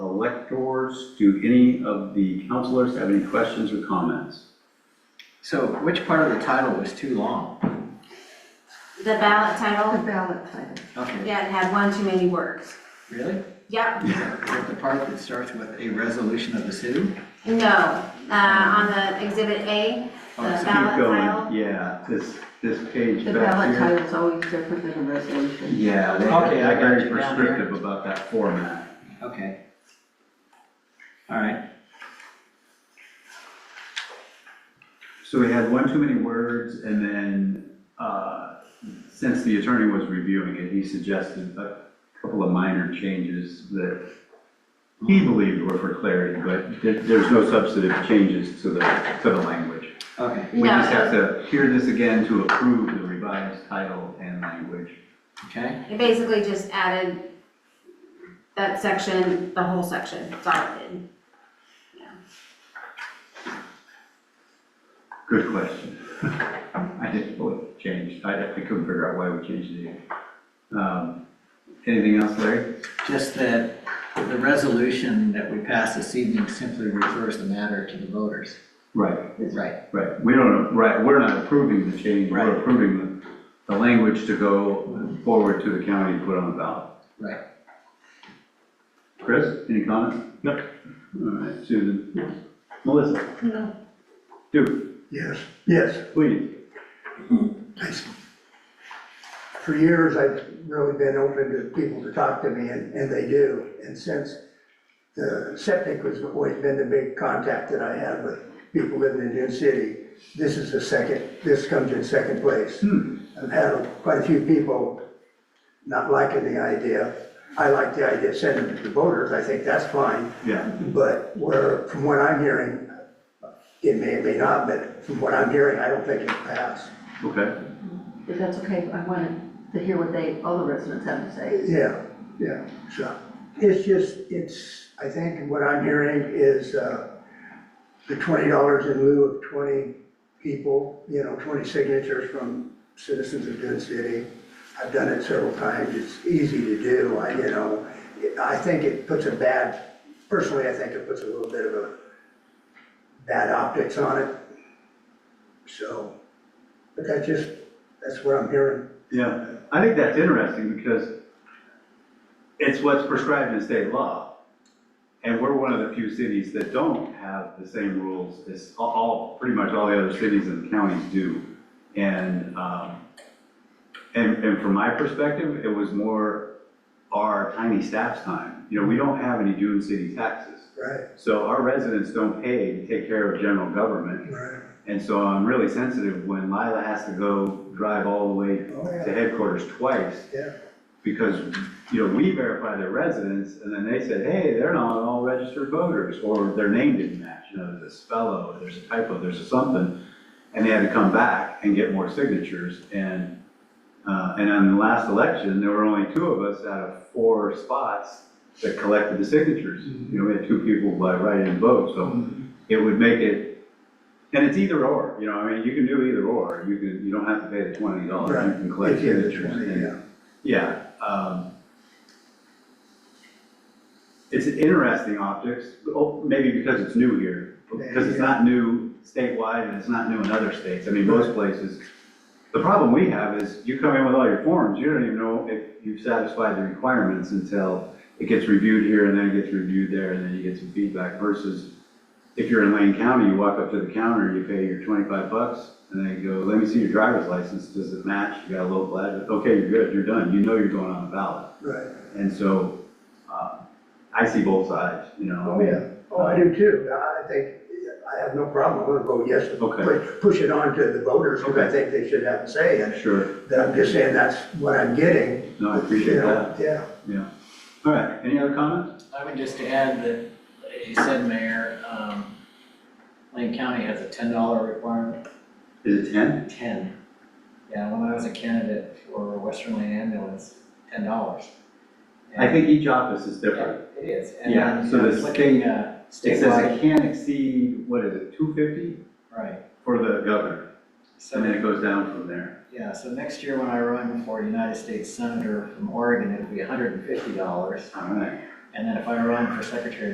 electors. Do any of the counselors have any questions or comments? So which part of the title was too long? The ballot The title, ballot title. Okay, yeah, it had one too many words. really? Yep, Is that the part that starts with a resolution of the city? no, uh, on the exhibit A, Oh, so the ballot keep Keep title. going, yeah, this, this page The back ballot here. title is always different than a resolution. Yeah, they- Okay, I they're got very you down there. prescriptive about that format. Okay. All right, So we had one too many words, and then, uh, since the attorney was reviewing it, he suggested a couple of minor changes that he believed were for clarity, but there, there's no substantive changes to the, to the language. okay, We just No. have to hear this again to approve the revised title and language. okay. It basically just added that section, the whole section, it's all it did. Good question. I didn't know it changed, I, I couldn't figure out why we changed it. Um, Anything else, Larry? Just that the resolution that we passed this evening simply refers the matter to the voters. Right. Right. Right, we don't, right, we're not approving the change, Right. we're approving the, the language to go forward to the county to put on the ballot. Right. Chris, any comments? No. All right, Susan? Melissa? No. Duke, Yes, yes. please. For years, I've really been open to people to talk to me, and, and they do. And since the septic has always been the big contact that I had with people living in Dune City, this is the second, this comes in second place. I've had quite a few people not liking the idea. I like the idea of sending it to voters, I think that's fine. Yeah, But where, from what I'm hearing, it may, it may not, but from what I'm hearing, I don't think it passed. okay, If that's okay, I wanted to hear what they, all the residents have to say. Yeah, yeah, so, it's just, it's, I think what I'm hearing is, uh, the twenty dollars in lieu of twenty people, you know, twenty signatures from citizens of Dune City. I've done it several times, it's easy to do, I, you know, it- I think it puts a bad, personally, I think it puts a little bit of a bad optics on it. So, but that just, that's what I'm hearing. yeah. I think that's interesting because it's what's prescribed in state law. And we're one of the few cities that don't have the same rules as all- all, pretty much all the other cities and counties do. And, um, And, and from my perspective, it was more our tiny staff's time. You know, we don't have any Dune City taxes. Right, So our residents don't pay to take care of general government. right, And so I'm really sensitive when Lila has to go drive all the way Oh, yeah. to headquarters twice. yeah. Because, you know, we verify their residents and then they said, hey, they're not all registered voters. Or their name didn't match, you know, there's a spell or there's a typo, there's a something. And they had to come back and get more signatures. And uh, And on the last election, there were only two of us out of four spots that collected the signatures. Mm-hmm. You know, we had two people by write-in vote, so it would make it, and it's either or, you know, I mean, you can do either or. You can, you don't have to pay the twenty dollars, you can collect If you have the signatures. 20, and- yeah. Yeah. um, It's an interesting optics, oh, maybe because it's new here, because it's Yeah. not new statewide and it's not new in other states. I mean, most places, the problem we have is you come in with all your forms, you don't even know if you've satisfied the requirements until it gets reviewed here and then it gets reviewed there and then you get some feedback versus if you're in Lane County, you walk up to the counter, you pay your twenty-five bucks and they go, let me see your driver's license, does it match? You got a local address, okay, you're good, you're done, you know you're going on the ballot. Right. And so, uh, I see both sides, you know. I Oh, mean, yeah. Oh, I do too. I think, I have no problem. I'm gonna vote yes. to Okay. pu- Push it on to the voters, because I Okay. think they should have a say in it. Sure, But I'm just saying that's what I'm getting. no, I appreciate you know? that, Yeah. yeah. All right, any other comments? I would just add that, you said, Mayor, um, Lane County has a ten dollar requirement Is it ten? Ten. Yeah, when I was a candidate for Western Lane Ambulance, ten dollars. I think each office is different. It is. And Yeah, then, so you know, the it's like, state- uh, It says Statewide, it can't exceed, what is it, two fifty right. for the governor, and then So, it goes down from there. yeah, so next year when I run for United States Senator from Oregon, it'll be hundred and fifty dollars. All right. And then if I run for Secretary